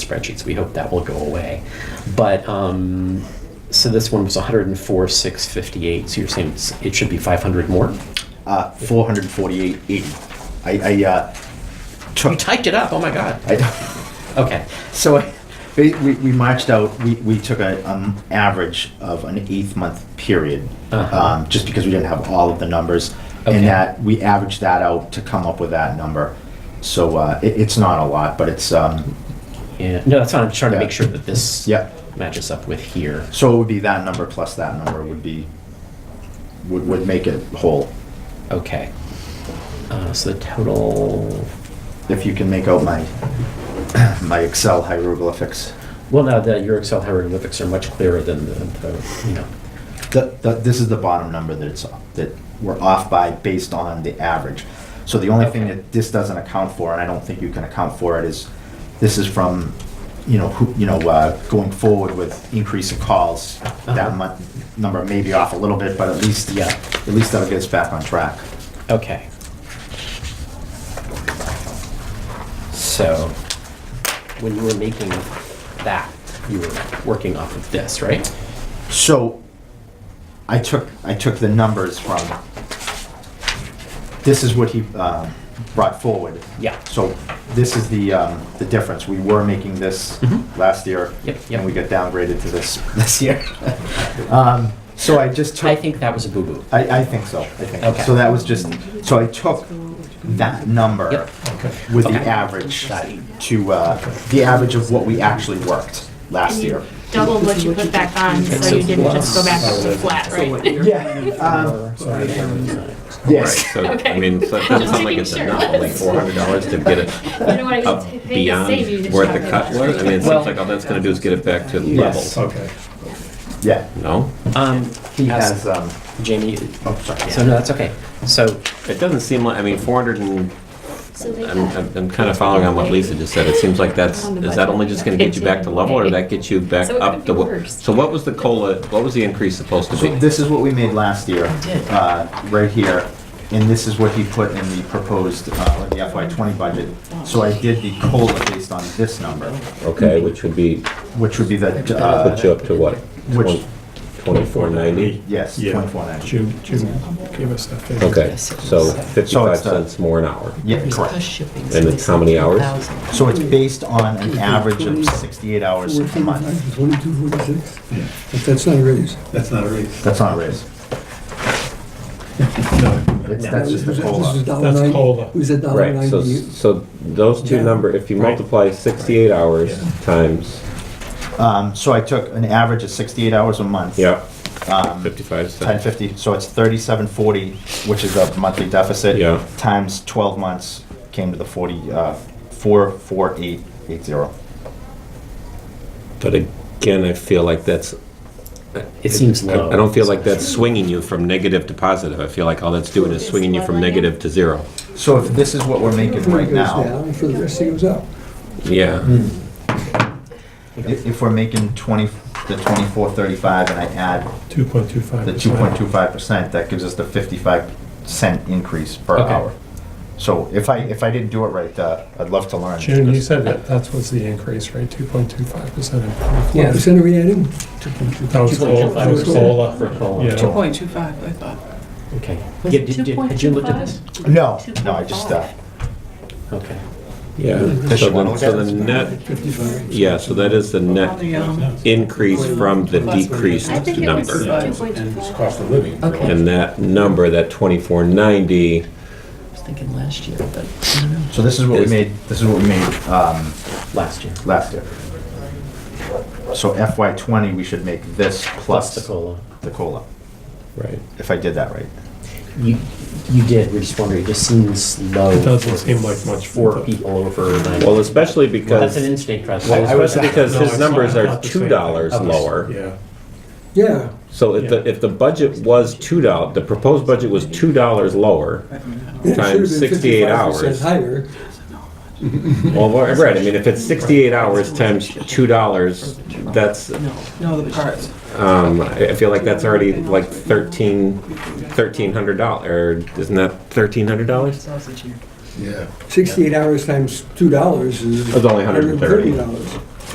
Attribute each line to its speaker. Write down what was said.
Speaker 1: spreadsheets. We hope that will go away. But, um, so this one was 104, 658, so you're saying it's- it should be 500 more?
Speaker 2: Uh, 448.80. I, I uh,
Speaker 1: You
Speaker 2: took.
Speaker 1: typed it up, oh my God.
Speaker 2: I,
Speaker 1: Okay,
Speaker 2: so I, we, we we marched out. We, we took a um, average of an eighth month period,
Speaker 1: Uh-huh.
Speaker 2: um, just because we didn't have all of the numbers,
Speaker 1: Okay.
Speaker 2: and that we averaged that out to come up with that number. So uh, it, it's not a lot, but it's um,
Speaker 1: yeah, no, that's fine, I'm just trying to
Speaker 2: Yeah.
Speaker 1: make sure that this
Speaker 2: yeah.
Speaker 1: matches up with here.
Speaker 2: So it would be that number plus that number would be would, would make it whole.
Speaker 1: Okay. Uh, So the total,
Speaker 2: If you can make out my my Excel hieroglyphics.
Speaker 1: well, now the, your Excel hieroglyphics are much clearer than the, the, you know.
Speaker 2: The, the, this is the bottom number that it's, that we're off by based on the average. So the only thing
Speaker 1: Okay.
Speaker 2: that this doesn't account for, and I don't think you can account for it, is this is from, you know, who, you know, uh, going forward with increase in calls,
Speaker 1: Uh-huh.
Speaker 2: that month, number may be off a little bit, but at least,
Speaker 1: Yeah.
Speaker 2: yeah, at least that'll get us back on track.
Speaker 1: Okay. So, when you were making that, you were working off of this, right?
Speaker 2: So I took, I took the numbers from, this is what he uh, brought forward.
Speaker 1: Yeah.
Speaker 2: So this is the, um, the difference. We were making this
Speaker 1: Mhm.
Speaker 2: last year.
Speaker 1: Yep, yep.
Speaker 2: And we got downgraded to this, this year. Um, So I just took.
Speaker 1: I think that was a boo-boo.
Speaker 2: I, I think so, I think.
Speaker 1: Okay.
Speaker 2: So that was just, so I took that number
Speaker 1: Yep.
Speaker 2: with the
Speaker 1: Okay.
Speaker 2: average to, uh, the average of what we actually worked last
Speaker 3: And
Speaker 2: year.
Speaker 3: you doubled what you put back on, so you didn't just go back up to flat, right?
Speaker 2: Yeah. um, Yes.
Speaker 4: Right, so, I
Speaker 3: Okay.
Speaker 4: mean, so it doesn't sound like it's
Speaker 3: Just making
Speaker 4: enough,
Speaker 3: sure.
Speaker 4: only four hundred dollars to get it
Speaker 3: You know what I
Speaker 4: up
Speaker 3: mean? They just save you
Speaker 4: beyond
Speaker 3: to
Speaker 4: where
Speaker 3: shove
Speaker 4: the
Speaker 3: it
Speaker 4: cut
Speaker 3: in.
Speaker 4: was? I mean, it
Speaker 1: Well-
Speaker 4: seems like all that's gonna do is get it back to
Speaker 2: Yes.
Speaker 4: level,
Speaker 5: Okay.
Speaker 2: Yeah.
Speaker 4: no?
Speaker 1: Um,
Speaker 2: He has, um,
Speaker 1: Jamie,
Speaker 2: oh, sorry.
Speaker 1: so no, that's okay. So,
Speaker 4: It doesn't seem like, I mean, four hundred and,
Speaker 3: So they
Speaker 4: I'm,
Speaker 3: cut.
Speaker 4: I'm- I'm kinda following on what Lisa just said, it seems like that's, is that only just gonna get you back to level, or that gets you back
Speaker 3: So it
Speaker 4: up
Speaker 3: could
Speaker 4: to
Speaker 3: be
Speaker 4: what?
Speaker 3: worse.
Speaker 4: So what was the COLA, what was the increase supposed to
Speaker 2: So
Speaker 4: be?
Speaker 2: this is what we made last year, uh, right here, and this is what he put in the proposed, uh, like the FY twenty budget. So I did the COLA based on this number,
Speaker 4: Okay, which would be,
Speaker 2: which would be the, uh,
Speaker 4: up to what?
Speaker 2: which,
Speaker 4: Twenty-four ninety?
Speaker 2: yes,
Speaker 5: Yeah.
Speaker 2: twenty-four ninety.
Speaker 5: Jim, Jim gave us that figure.
Speaker 6: Okay, so
Speaker 2: So
Speaker 6: fifty-five
Speaker 2: it's uh, the-
Speaker 6: cents more an hour.
Speaker 2: Yeah, correct.
Speaker 6: And it's how many hours?
Speaker 2: So it's based on an average of 68 hours a month.
Speaker 7: Twenty-two, forty-six? But that's not a raise.
Speaker 5: That's not a raise.
Speaker 2: That's not a raise.
Speaker 5: No.
Speaker 2: It's- That's just
Speaker 7: This
Speaker 2: the
Speaker 7: is a
Speaker 2: COLA.
Speaker 7: dollar
Speaker 5: That's
Speaker 7: ninety-
Speaker 5: COLA.
Speaker 7: It was a dollar
Speaker 6: Right, so,
Speaker 7: ninety.
Speaker 6: so those two number, if you
Speaker 5: Right.
Speaker 6: multiply sixty-eight hours
Speaker 5: Yeah.
Speaker 6: times,
Speaker 2: Um, So I took an average of 68 hours a month.
Speaker 6: yeah,
Speaker 2: um,
Speaker 6: fifty-five cents.
Speaker 2: 1050, so it's 3740, which is a monthly deficit.
Speaker 6: Yeah.
Speaker 2: Times 12 months came to the 40, uh, 44880.
Speaker 6: But again, I feel like that's,
Speaker 1: it seems
Speaker 6: I
Speaker 1: low.
Speaker 6: I don't feel like
Speaker 4: That's
Speaker 6: that's
Speaker 4: swinging you from negative to positive, I feel like all that's doing is swinging you from negative to zero.
Speaker 2: So if this is what we're making
Speaker 7: Everybody
Speaker 2: right
Speaker 7: goes
Speaker 2: now,
Speaker 7: down, for the rest it goes up.
Speaker 1: Mm.
Speaker 6: yeah,
Speaker 2: i- if we're making 20, the 2435 and I add
Speaker 5: Two point two five.
Speaker 2: the 2.25%, that gives us the 55 cent increase per
Speaker 1: Okay.
Speaker 2: hour. So if I, if I didn't do it right, uh, I'd love to learn.
Speaker 5: June, you said that that was the increase, right? Two point two five percent.
Speaker 7: What percent are we adding?
Speaker 5: That was COLA, that was
Speaker 7: 2.25%.
Speaker 1: For
Speaker 5: COLA.
Speaker 1: COLA.
Speaker 5: Yeah.
Speaker 8: Two point two five, I thought.
Speaker 1: Okay.
Speaker 8: Was
Speaker 1: Yeah,
Speaker 8: it
Speaker 1: did, did, had you looked at this?
Speaker 2: No, no, I just, uh,
Speaker 8: 2.5.
Speaker 1: Okay.
Speaker 6: yeah.
Speaker 2: Does she
Speaker 6: So
Speaker 2: wanna
Speaker 6: the,
Speaker 2: look
Speaker 6: so
Speaker 2: at
Speaker 6: the
Speaker 2: it?
Speaker 6: net,
Speaker 7: Fifty-five.
Speaker 6: yeah, so that is the
Speaker 8: Well,
Speaker 6: net
Speaker 8: the, um,
Speaker 6: increase from the decreased
Speaker 3: I think it was
Speaker 6: number.
Speaker 3: two point two five.
Speaker 5: of living.
Speaker 8: Okay,
Speaker 6: And that number, that twenty-four ninety,
Speaker 8: I was thinking last year, but
Speaker 2: so this is what we
Speaker 6: Is-
Speaker 2: made, this is what we made, um,
Speaker 1: Last year,
Speaker 2: last year. So FY twenty, we should make this
Speaker 1: plus
Speaker 2: plus
Speaker 1: the COLA.
Speaker 2: the COLA,
Speaker 6: right.
Speaker 2: if I did that right.
Speaker 1: You, you did, we're just wondering, it just seems low.
Speaker 5: It doesn't
Speaker 1: for-
Speaker 5: seem like much for
Speaker 1: For
Speaker 5: the-
Speaker 1: people over ninety.
Speaker 6: Well, especially because.
Speaker 1: Well, that's an instinct, Russ.
Speaker 6: Well,
Speaker 2: I- I was-
Speaker 6: especially because
Speaker 5: No,
Speaker 6: his
Speaker 5: it's not-
Speaker 6: numbers are
Speaker 5: not the same.
Speaker 6: two dollars
Speaker 1: Okay.
Speaker 6: lower.
Speaker 5: Yeah.
Speaker 7: Yeah,
Speaker 6: So if the,
Speaker 5: Yeah.
Speaker 6: if the budget was two dollars, the proposed budget was two dollars lower,
Speaker 7: it should have been
Speaker 6: Times 68
Speaker 7: 55%
Speaker 6: hours.
Speaker 7: Higher,
Speaker 6: well, we're- right, I mean, if it's sixty-eight hours times two dollars, that's,
Speaker 8: no, no, the parts.
Speaker 6: um, I I feel like that's already like thirteen, thirteen hundred dollars, or isn't that thirteen hundred dollars?
Speaker 8: Sausage here.
Speaker 5: Yeah.
Speaker 7: sixty-eight hours times two dollars is.
Speaker 6: It's only $130.
Speaker 7: dollars.